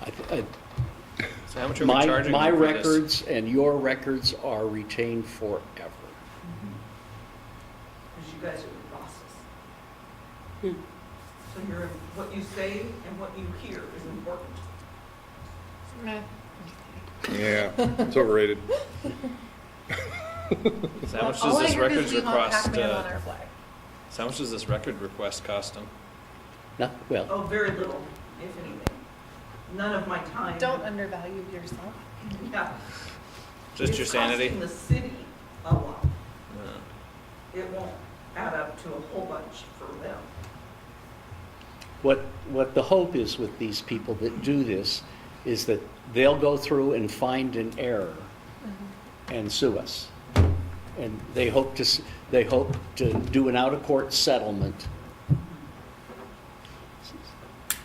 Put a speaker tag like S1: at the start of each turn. S1: uh,
S2: So how much are we
S1: my,
S2: charging
S1: my
S2: them for this?
S1: records and your records are retained forever.
S3: because you guys are the bosses. So you're, what you say and what you hear is important.
S4: Yeah, it's overrated.
S2: So how much does
S5: All I
S2: this
S5: heard is
S2: records
S5: we want
S2: request,
S5: Pac-Man on
S2: uh,
S5: our flag.
S2: so how much does this record request cost them?
S1: No, well,
S3: Oh, very little, if anything. None of my time.
S5: Don't undervalue yourself.
S3: Yeah.
S2: Just your sanity?
S3: It's costing the city a lot.
S2: Uh,
S3: It won't add up to a whole bunch for them.
S1: what, what the hope is with these people that do this is that they'll go through and find an error and sue us. And they hope to, s- they hope to do an out-of-court settlement